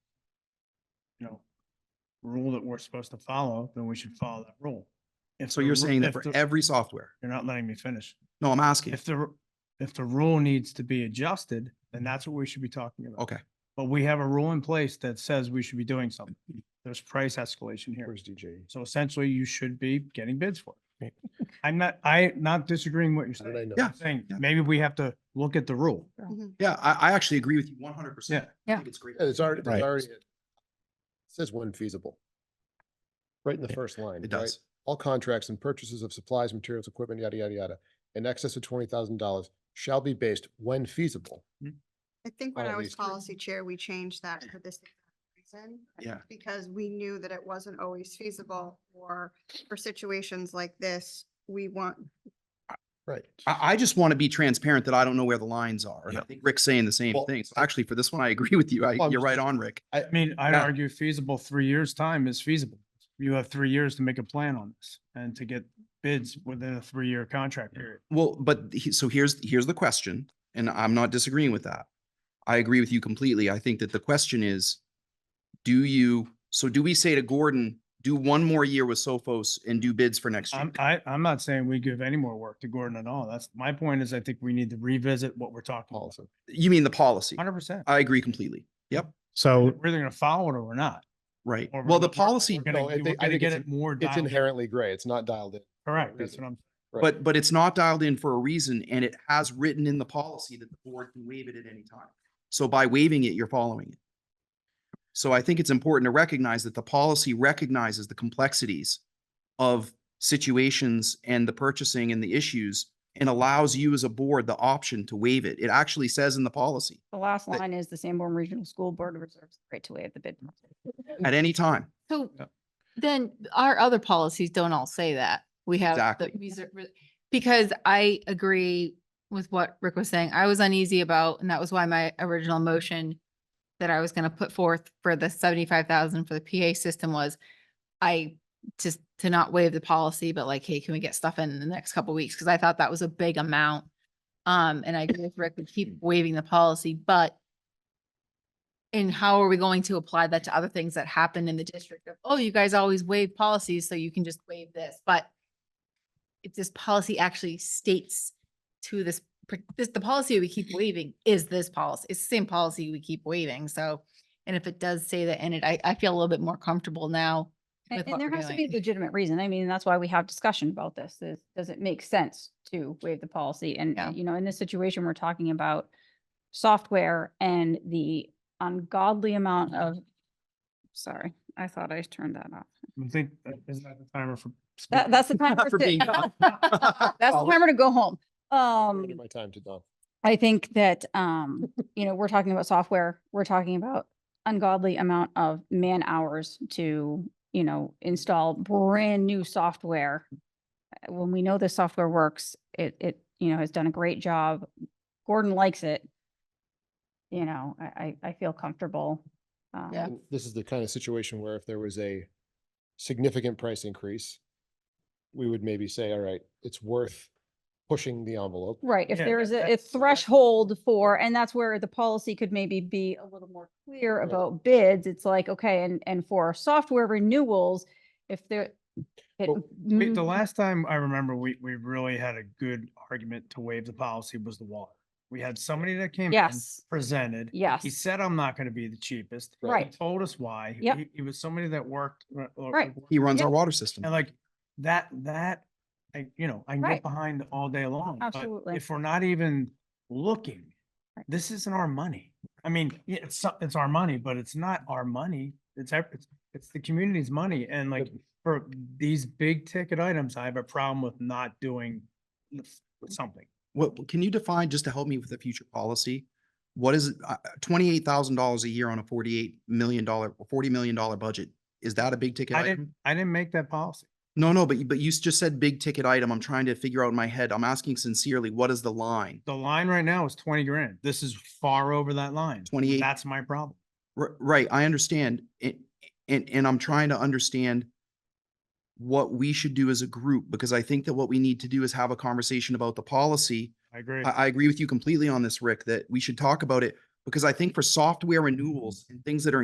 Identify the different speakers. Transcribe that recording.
Speaker 1: you know, rule that we're supposed to follow, then we should follow that rule. If
Speaker 2: So
Speaker 1: the
Speaker 2: you're
Speaker 1: ru-
Speaker 2: saying that
Speaker 1: if
Speaker 2: for
Speaker 1: the-
Speaker 2: every software?
Speaker 1: You're not letting me finish.
Speaker 2: No, I'm asking.
Speaker 1: If the, ru- if the rule needs to be adjusted, then that's what we should be talking about.
Speaker 2: Okay.
Speaker 1: But we have a rule in place that says we should be doing something. There's price escalation here.
Speaker 3: DJ?
Speaker 1: So essentially you should be getting bids for it. I'm not, I not disagreeing what you're
Speaker 3: How did I
Speaker 1: saying.
Speaker 3: know?
Speaker 2: Yeah.
Speaker 1: I'm Saying
Speaker 2: Yeah.
Speaker 1: maybe we have to look at the rule.
Speaker 2: Yeah, I, I actually agree with you one hundred percent.
Speaker 4: Yeah.
Speaker 2: It's great.
Speaker 3: It's already,
Speaker 5: Right.
Speaker 3: it's already. it Says when feasible. Right in the
Speaker 5: Yeah,
Speaker 3: first line.
Speaker 2: It
Speaker 3: right?
Speaker 2: does.
Speaker 3: All contracts and purchases of supplies, materials, equipment, yada, yada, yada, in excess of twenty thousand dollars shall be based when feasible.
Speaker 6: I think when
Speaker 3: Oh,
Speaker 6: I was
Speaker 3: these three.
Speaker 6: policy chair, we changed that for this reason.
Speaker 2: Yeah.
Speaker 6: Because we knew that it wasn't always feasible or for situations like this, we want,
Speaker 3: Right.
Speaker 2: I, I just want to be transparent that I don't know where the lines are. And I
Speaker 5: Yeah.
Speaker 2: think Rick's saying the same
Speaker 3: Well-
Speaker 2: thing. So actually, for this one, I agree with you. I,
Speaker 3: Well, I'm
Speaker 2: you're
Speaker 3: just-
Speaker 2: right on, Rick.
Speaker 1: I mean, I'd
Speaker 2: Yeah.
Speaker 1: argue feasible, three years' time is feasible. You have three years to make a plan on this and to get bids within a three-year contract period.
Speaker 2: Well, but he, so here's, here's the question, and I'm not disagreeing with that. I agree with you completely. I think that the question is, do you, so do we say to Gordon, do one more year with Sophos and do bids for next year?
Speaker 1: I'm, I, I'm not saying we give any more work to Gordon at all. That's, my point is I think we need to revisit what we're talking about.
Speaker 3: Policy.
Speaker 2: You mean the policy?
Speaker 1: Hundred percent.
Speaker 2: I agree completely. Yep,
Speaker 5: So,
Speaker 1: We're either gonna follow it or we're not.
Speaker 2: right.
Speaker 1: or we're
Speaker 2: Well,
Speaker 1: gonna-
Speaker 2: the
Speaker 1: we're-
Speaker 2: policy,
Speaker 1: We're gonna,
Speaker 3: No, I
Speaker 1: we're
Speaker 3: think- I
Speaker 1: gonna
Speaker 3: think
Speaker 1: get it
Speaker 3: it's
Speaker 1: more
Speaker 3: It's
Speaker 1: dialed in.
Speaker 3: inherently gray. It's not dialed in.
Speaker 1: Correct, that's what I'm,
Speaker 3: Right.
Speaker 2: But, but it's not dialed in for a reason and it has written in the policy that the board can waive it at any time. So by waiving it, you're following it. So I think it's important to recognize that the policy recognizes the complexities of situations and the purchasing and the issues and allows you as a board the option to waive it. It actually says in the policy,
Speaker 7: The last
Speaker 2: But-
Speaker 7: line is the Sanborn Regional School Board reserves the right to waive the bid. process."
Speaker 2: at any time.
Speaker 4: So
Speaker 1: Yeah.
Speaker 4: then our other policies don't all say that. We have, the
Speaker 2: Exactly.
Speaker 4: reser- re- because I agree with what Rick was saying. I was uneasy about, and that was why my original motion that I was going to put forth for the seventy-five thousand for the PA system was I just to not waive the policy, but like, hey, can we get stuff in the next couple weeks? Because I thought that was a big amount. Um, and I agree with Rick, we keep waiving the policy, but and how are we going to apply that to other things that happen in the district of, oh, you guys always waive policies, so you can just waive this, but if this policy actually states to this, par- this, the policy we keep waiving is this policy, it's the same policy we keep waiving, so and if it does say that in it, I, I feel a little bit more comfortable now.
Speaker 7: And
Speaker 4: with what
Speaker 7: and there
Speaker 4: we're
Speaker 7: has to be
Speaker 4: doing.
Speaker 7: a legitimate reason. I mean, that's why we have discussion about this. Is, does it make sense to waive the policy? And,
Speaker 4: Yeah.
Speaker 7: uh, you know, in this situation, we're talking about software and the ungodly amount of, sorry, I thought I turned that off.
Speaker 1: I think, isn't that the timer for?
Speaker 7: That, that's the time.
Speaker 2: For
Speaker 7: to-
Speaker 2: being done.
Speaker 7: That's the timer to go home. Um.
Speaker 3: Give My time to Don.
Speaker 7: I think that, um, you know, we're talking about software, we're talking about ungodly amount of man hours to, you know, install brand new software. Uh, When we know the software works, it, it, you know, has done a great job. Gordon likes it. You know, I, I, I feel comfortable. um,
Speaker 4: Yeah.
Speaker 3: And This is the kind of situation where if there was a significant price increase, we would maybe say, all right, it's worth pushing the envelope.
Speaker 7: Right, if
Speaker 1: Yeah,
Speaker 7: there is
Speaker 1: that-
Speaker 7: a- a
Speaker 1: that's- that's-
Speaker 7: threshold for, and that's where the policy could maybe be a little more clear
Speaker 3: Right.
Speaker 7: about bids, it's like, okay, and, and for software renewals, if there. it-
Speaker 3: Well,
Speaker 1: We- The
Speaker 7: Mm,
Speaker 1: last time I remember, we, we really had a good argument to waive the policy was the water. We had somebody that came. in,
Speaker 7: Yes,
Speaker 1: Presented. He
Speaker 7: yes,
Speaker 1: said, I'm not gonna be the cheapest. He
Speaker 7: Right.
Speaker 1: Told us why.
Speaker 7: Yep.
Speaker 1: He- He was somebody that worked. uh, uh,
Speaker 7: Right.
Speaker 2: He runs
Speaker 7: Yeah.
Speaker 2: our water system.
Speaker 1: And like, that, that, I, you know, I can get
Speaker 7: Right.
Speaker 1: behind all day long. but
Speaker 7: Absolutely.
Speaker 1: If we're not even looking,
Speaker 7: Right.
Speaker 1: this isn't our money. I mean, yeah, it's, so- it's our money, but it's not our money. It's, ev- it's, it's the community's money. And like, for these big ticket items, I have a problem with not doing s- something.
Speaker 2: What, what- can you define, just to help me with the future policy? What is, uh, twenty-eight thousand dollars a year on a forty-eight million dollar, or forty million dollar budget? Is that a big ticket
Speaker 1: I didn't,
Speaker 2: item?
Speaker 1: I didn't make that policy.
Speaker 2: No, no, but, you- but you s- just said big ticket item. I'm trying to figure out in my head. I'm asking sincerely, what is the line?
Speaker 1: The line right now is twenty grand. This is far over that line.
Speaker 2: Twenty-eight,
Speaker 1: That's my problem.
Speaker 2: r- right, I understand. And, and, and I'm trying to understand what we should do as a group, because I think that what we need to do is have a conversation about the policy
Speaker 1: I agree.
Speaker 2: I, I agree with you completely on this, Rick, that we should talk about it because I think for software renewals and things that are